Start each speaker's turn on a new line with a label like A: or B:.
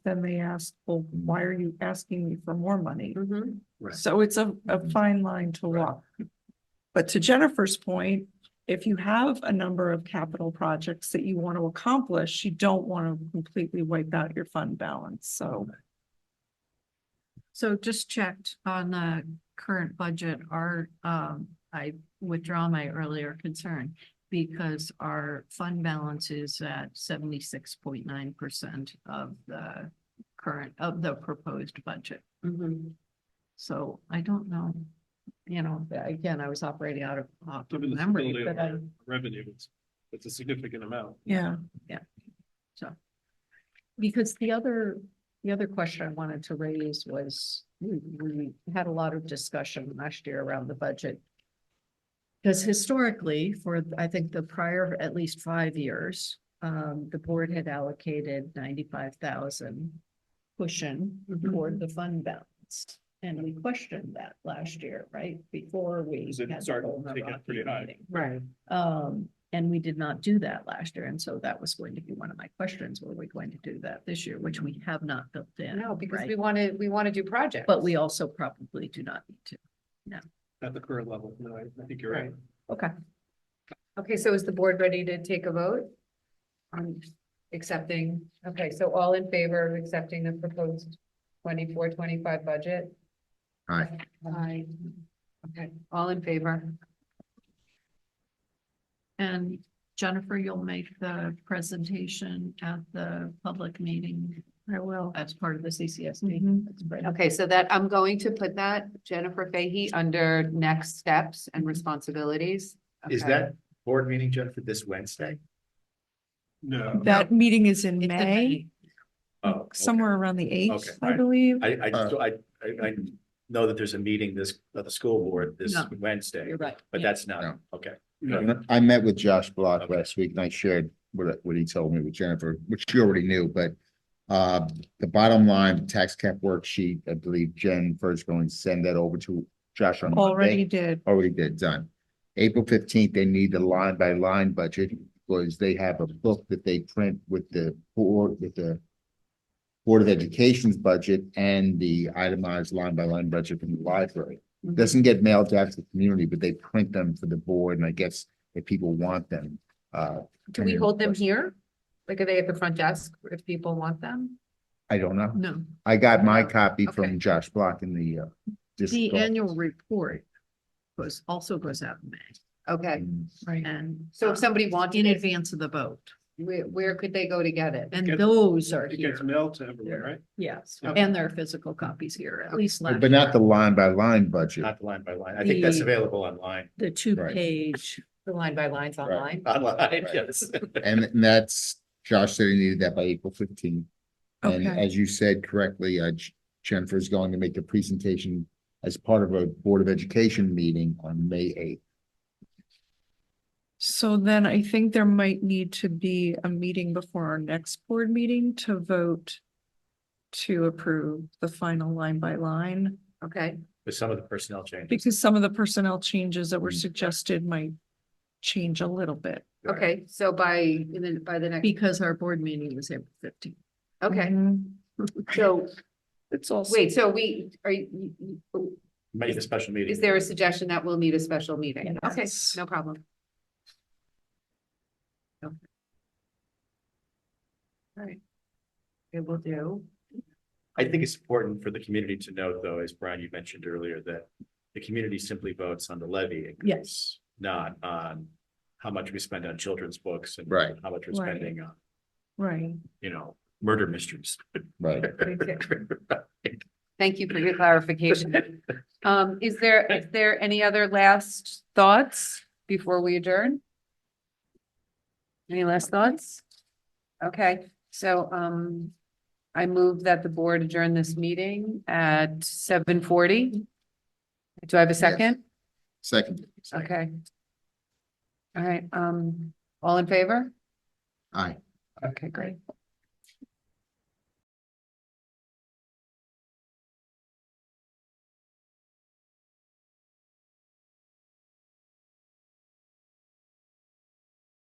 A: then they ask, well, why are you asking me for more money?
B: Mhm.
C: Right.
A: So it's a,
D: Mm-hmm.
A: a fine line to
C: Right.
A: walk. But to Jennifer's point, if you have a number of capital projects that you want to accomplish, you don't want to completely wipe out your fund balance, so.
B: So just checked on the current budget, our, um, I withdraw my earlier concern because our fund balance is at seventy-six point nine percent of the current, of the proposed budget. So I don't know, you know, again, I was operating out of, off of
C: Given the
B: memory,
C: stability of
B: but I,
C: our Revenue, it's, it's a significant amount.
A: Yeah,
B: because the other, the other question I wanted to raise was, we, we had a lot of discussion last year around the budget. Because historically, for, I think the prior at least five years, um, the board had allocated ninety-five thousand cushion toward the fund balance. And we questioned that last year, right, before we.
C: Is it
B: had the
C: started
B: whole
C: to get
B: Milwaukee
C: pretty high?
B: meeting.
E: Right.
B: Um, and we did not do that last year, and so that was going to be one of my questions, were we going to do that this year, which we have not built in.
E: No, because
B: right?
E: we want to, we want to do projects.
B: But we also probably do not need to.
C: At the current level, no, I, I think you're right.
E: Right. Okay, so is the board ready to take a vote? On accepting, okay, so all in favor of accepting the proposed 24-25 budget?
D: Aye.
E: Aye. Okay, all in favor?
B: And Jennifer, you'll make the presentation at the public meeting. I will. As part of the CCSD.
A: Mhm.
B: That's great.
E: Okay, so that, I'm going to put that Jennifer Fahey under next steps and responsibilities.
D: Is
E: Okay.
D: that board meeting, Jennifer, this Wednesday?
C: No,
A: that meeting is in
B: It's in
A: May,
D: Oh, okay.
A: somewhere around the eighth,
D: Okay,
A: I
D: right.
A: believe.
D: I, I,
B: Uh,
D: just- I, I, I know that there's a meeting this, of the school board this
B: No.
D: Wednesday,
B: You're right.
D: but
B: Yeah.
D: that's not,
F: No.
D: okay.
C: no,
F: I met with Josh Block
D: Okay.
F: last week and I shared what, what he told me with Jennifer, which she already knew, but uh, the bottom line, tax cap worksheet, I believe Jen first going to send that over to Josh on
A: Already
F: Monday.
A: did.
F: Already did, done. April fifteenth, they need the line by line budget because they have a book that they print with the board, with the Board of Education's budget and the itemized line by line budget from the library
E: Mhm.
F: doesn't get mailed out to the community, but they print them for the board, and I guess if people want them, uh.
E: Do we hold them here? Like, are they at the front desk if people want them?
F: I don't know.
B: No,
F: I got my copy
E: Okay.
F: from Josh Block in the, uh. district
B: the
F: office.
B: annual report goes, also goes out in May.
E: Okay,
B: And.
D: Uh,
E: so if
B: somebody
E: somebody wanted
B: In
E: it,
B: advance of the vote,
E: where, where could they go to get it?
B: and
C: gets-
B: those are
C: it
B: here.
C: gets mailed to everyone, right?
B: Yes,
C: Yeah.
B: and there are physical copies here, at least last.
F: But not the
B: year.
F: line by line budget.
D: Not the line by line. I think that's
B: The-
D: available online,
B: The two page,
E: The line by lines online?
D: online,
F: Right.
D: yes.
F: And, and that's, Josh said he needed that by April fifteenth. And
A: Okay.
F: as you said correctly, uh, J- Jennifer's going to make the presentation as part of a Board of Education meeting on May eighth.
A: So then I think there might need to be a meeting before our next board meeting to vote to approve the final line by line,
E: Okay,
D: With some of the personnel changes.
A: because some of the personnel changes that were
F: Mm.
A: suggested might change a little bit.
E: okay, so by, in the, by the next,
B: because our board meeting was April fifteenth.
E: okay,
A: Mhm.
E: so,
A: It's also.
E: wait, so we, are you, you-
D: Make a special meeting.
E: is there a suggestion that we'll need a special meeting? Okay,
A: Yes.
E: no problem. Okay. All right. It will do.
D: I think it's important for the community to note, though, as Brian, you mentioned earlier, that the community simply votes on the levy. increase,
B: Yes.
D: Not on how much we spend on children's books and.
F: Right.
D: How much we're
A: Right.
D: spending on,
A: Right.
D: you know, murder mysteries.
F: Right.
E: Thank you for your clarification. Um, is there, is there any other last thoughts before we adjourn? Any last thoughts? Okay, so, um, I move that the board adjourn this meeting at seven forty. Do I have a second?
F: Second,
E: Okay. All right, um, all in favor?
F: aye.
E: Okay, great.